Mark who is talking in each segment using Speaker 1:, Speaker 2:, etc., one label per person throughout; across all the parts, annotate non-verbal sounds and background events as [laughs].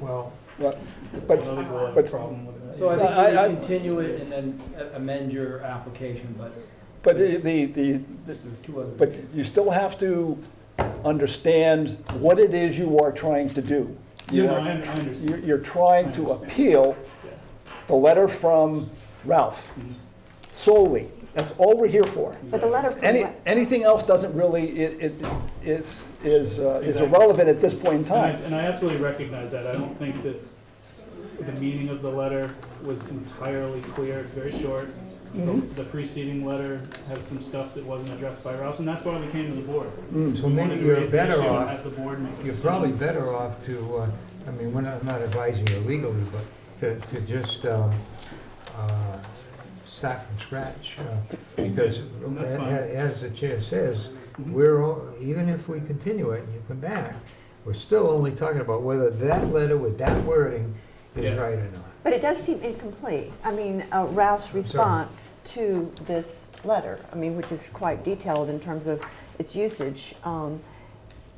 Speaker 1: Well,
Speaker 2: Well,
Speaker 1: another
Speaker 2: But,
Speaker 1: we'll have a
Speaker 2: but-
Speaker 1: problem with that.
Speaker 3: So I
Speaker 2: I- I-
Speaker 3: think you would continue it and then a- amend your application, but
Speaker 2: but the, the, the-
Speaker 3: there are two other.
Speaker 2: but you still have to understand what it is you are trying to do.
Speaker 1: No,
Speaker 2: You
Speaker 1: no, I
Speaker 2: are-
Speaker 1: un- I
Speaker 2: You're,
Speaker 1: understand.
Speaker 2: you're trying to
Speaker 1: I understand.
Speaker 2: appeal
Speaker 1: Yeah.
Speaker 2: the letter from Ralph
Speaker 1: Mhm.
Speaker 2: solely. That's all we're here for.
Speaker 4: But the letter from
Speaker 2: Any,
Speaker 4: what?
Speaker 2: anything else doesn't really, it, it is, is uh, is
Speaker 1: Exactly.
Speaker 2: irrelevant at this point in
Speaker 1: And I,
Speaker 2: time.
Speaker 1: and I absolutely recognize that. I don't think that the meaning of the letter was entirely clear. It's very short.
Speaker 2: Mhm.
Speaker 1: The preceding letter has some stuff that wasn't addressed by Ralph, and that's why we came to the board.
Speaker 2: Mm.
Speaker 5: So
Speaker 1: We wanted
Speaker 5: maybe
Speaker 1: to
Speaker 5: you're
Speaker 1: raise the
Speaker 5: better
Speaker 1: issue and
Speaker 5: off,
Speaker 1: have the board make a
Speaker 5: you're
Speaker 1: decision.
Speaker 5: probably better off to, uh, I mean, we're not, I'm not advising you legally, but to, to just, um, uh, start from scratch, uh, because
Speaker 1: That's
Speaker 5: a-
Speaker 1: fine.
Speaker 5: a- as the chair says,
Speaker 1: Mhm.
Speaker 5: we're, all- even if we continue it and you come back, we're still only talking about whether that letter with that wording is
Speaker 1: Yeah.
Speaker 5: right or not.
Speaker 4: But it does seem incomplete. I mean, uh, Ralph's response to this letter, I mean, which is quite detailed in terms of its usage, um,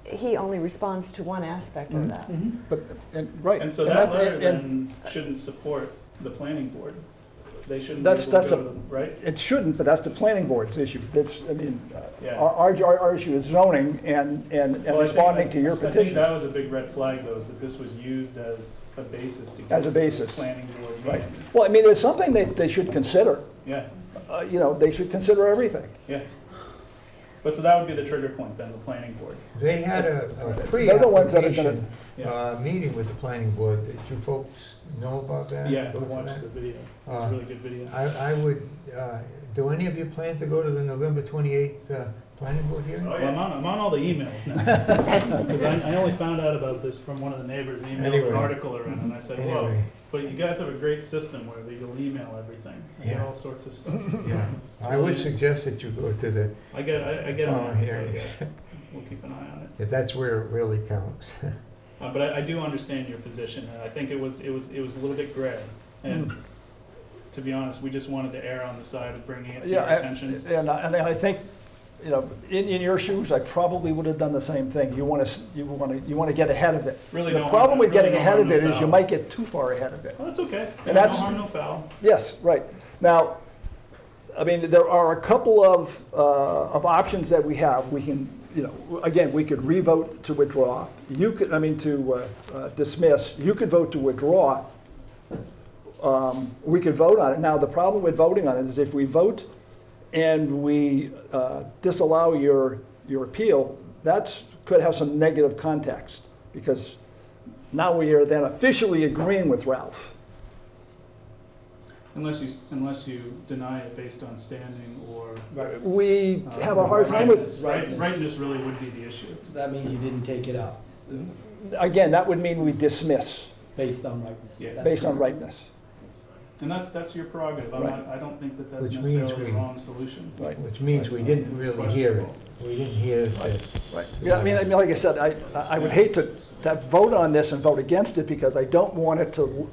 Speaker 4: he only responds to one aspect of
Speaker 2: Mhm.
Speaker 4: that.
Speaker 1: Mm-hmm.
Speaker 2: But, and, right.
Speaker 1: And so
Speaker 2: And
Speaker 1: that
Speaker 2: I-
Speaker 1: letter
Speaker 2: and-
Speaker 1: then shouldn't support the planning board. They shouldn't be able
Speaker 2: That's-
Speaker 1: to
Speaker 2: that's
Speaker 1: go
Speaker 2: a-
Speaker 1: to them, right?
Speaker 2: It shouldn't, but that's the planning board's issue. That's, I mean, uh,
Speaker 1: Yeah.
Speaker 2: our, our, our- our issue is zoning and, and and
Speaker 1: Well, I think-
Speaker 2: responding to your
Speaker 1: I think
Speaker 2: petition.
Speaker 1: that was a big red flag, though, is that this was used as a basis to. go
Speaker 2: As a
Speaker 1: to the
Speaker 2: basis.
Speaker 1: Planning board.
Speaker 2: Right.
Speaker 1: meeting.
Speaker 2: Well, I mean, it's something that they should consider.
Speaker 1: Yeah,
Speaker 2: Uh, You know, they should consider everything.
Speaker 1: yeah. But so that would be the trigger point then, the planning board.
Speaker 5: They had a a
Speaker 2: They're the ones that are gonna-
Speaker 5: pre-application,
Speaker 1: Yeah.
Speaker 5: uh, meeting with the planning board. Did you folks know about that?
Speaker 1: Yeah,
Speaker 5: Go to
Speaker 1: watch
Speaker 5: that?
Speaker 1: the video. It's a
Speaker 5: Uh,
Speaker 1: really good video.
Speaker 5: I, I would, uh, do any of you plan to go to the November 28th uh, planning board hearing?
Speaker 1: Well, Oh, I'm on, I'm on all the emails now. [laughs] Because I, I only found out about this from one of the neighbors emailed
Speaker 5: Anyway.
Speaker 1: an article around and I said, whoa.
Speaker 5: Anyway,
Speaker 1: But you guys have a great system where you'll email everything. I get
Speaker 5: Yeah.
Speaker 1: all sorts of stuff.
Speaker 2: [laughs]
Speaker 5: yeah, I would suggest that you go to the,
Speaker 1: I get, I, I get
Speaker 5: Oh,
Speaker 1: them,
Speaker 5: here
Speaker 1: so
Speaker 5: it is.
Speaker 1: yeah, we'll keep an eye on it.
Speaker 5: if that's where it really counts. [laughs]
Speaker 1: Uh, but I, I do understand your position, and I think it was, it was, it was a little bit gray. And
Speaker 2: Hmm.
Speaker 1: to be honest, we just wanted to err on the side of bringing it to your
Speaker 2: Yeah, I-
Speaker 1: attention.
Speaker 2: And I, and I think, you know, in, in your shoes, I probably would have done the same thing. You want to, you want to, you want to get ahead of it.
Speaker 1: Really
Speaker 2: The
Speaker 1: don't
Speaker 2: problem
Speaker 1: wanna-
Speaker 2: with
Speaker 1: really
Speaker 2: getting
Speaker 1: don't
Speaker 2: ahead of
Speaker 1: wanna
Speaker 2: it is you
Speaker 1: foul.
Speaker 2: might get too far ahead of it.
Speaker 1: Well, that's okay.
Speaker 2: And
Speaker 1: No
Speaker 2: that's-
Speaker 1: harm, no foul.
Speaker 2: Yes, right. Now, I mean, there are a couple of, uh, of options that we have. We can, you know, again, we could re-vote to withdraw. You could, I mean, to uh, uh, dismiss. You could vote to withdraw. Um, We could vote on it. Now, the problem with voting on it is if we vote and we uh, disallow your, your appeal, that's, could have some negative context because now we are then officially agreeing with Ralph.
Speaker 1: Unless you, unless you deny it based on standing or.
Speaker 3: Right.
Speaker 2: We
Speaker 1: uh,
Speaker 2: have a hard time
Speaker 1: rightness.
Speaker 2: with,
Speaker 1: Right, rightness really would be the issue.
Speaker 3: So That means you didn't take it out
Speaker 2: again, that would mean we dismiss
Speaker 3: based on rightness.
Speaker 1: Yeah.
Speaker 3: That's
Speaker 2: based on
Speaker 3: correct.
Speaker 2: rightness.
Speaker 1: And that's, that's your prerogative. I'm
Speaker 2: Right.
Speaker 1: not, I don't think that that's
Speaker 5: Which means
Speaker 1: necessarily the
Speaker 5: we-
Speaker 1: wrong solution.
Speaker 2: Right.
Speaker 5: Which means we didn't really hear it. We didn't hear the
Speaker 2: Right. Yeah, I mean, I mean, like I said, I, I would hate to, to vote on this and vote against it because I don't want it to,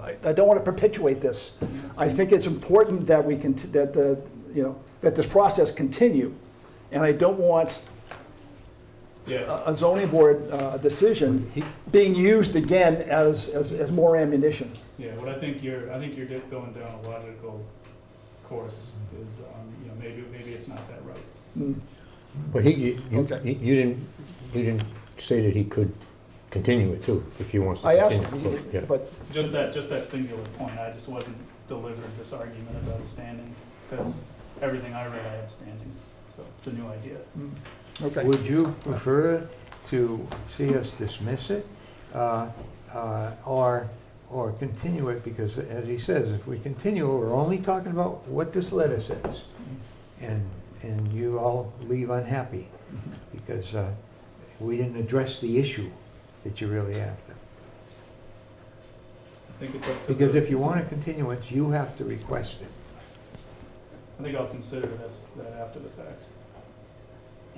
Speaker 2: I, I don't want to perpetuate this. I think it's important that we can, that the, you know, that this process continue. And I don't want
Speaker 1: Yeah,
Speaker 2: a a zoning board uh, decision being used again as, as, as more ammunition.
Speaker 1: yeah, what I think you're, I think you're di- going down a logical course is, um, you know, maybe, maybe it's not that right.
Speaker 2: Mm.
Speaker 6: But he, you,
Speaker 2: Okay.
Speaker 6: you you didn't, you didn't say that he could continue it too, if he wants to
Speaker 2: I asked,
Speaker 6: continue. Yeah.
Speaker 2: him, but,
Speaker 1: Just that, just that singular point, I just wasn't delivered this argument about standing, because everything I read, I had standing, so it's a new idea.
Speaker 2: mm, okay.
Speaker 5: Would you prefer to see us dismiss it, uh, uh, or, or continue it? Because as he says, if we continue, we're only talking about what this letter says. And, and you all leave
Speaker 1: [laughs]
Speaker 5: unhappy, because uh, we didn't address the issue that you're really after.
Speaker 1: I think it's up to,
Speaker 5: Because
Speaker 1: the-
Speaker 5: if you want a continuance, you have to request it.
Speaker 1: I think I'll consider this, that after the fact.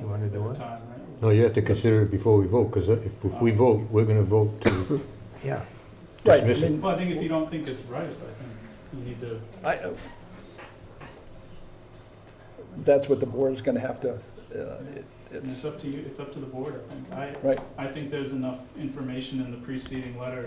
Speaker 5: You wanna do
Speaker 1: At the
Speaker 5: it?
Speaker 1: time, right?
Speaker 6: No, you have to consider it before we vote, because if, if we vote, we're gonna vote to
Speaker 5: Yeah.
Speaker 2: Right, I
Speaker 6: dismiss it.
Speaker 2: mean,
Speaker 1: Well, I think if you don't think it's right, I think you need to,
Speaker 2: I- That's what the board is going to have to, uh,
Speaker 1: And it's up to you, it's up to the board, I think. I,
Speaker 2: Right.
Speaker 1: I think there's enough information in the preceding letter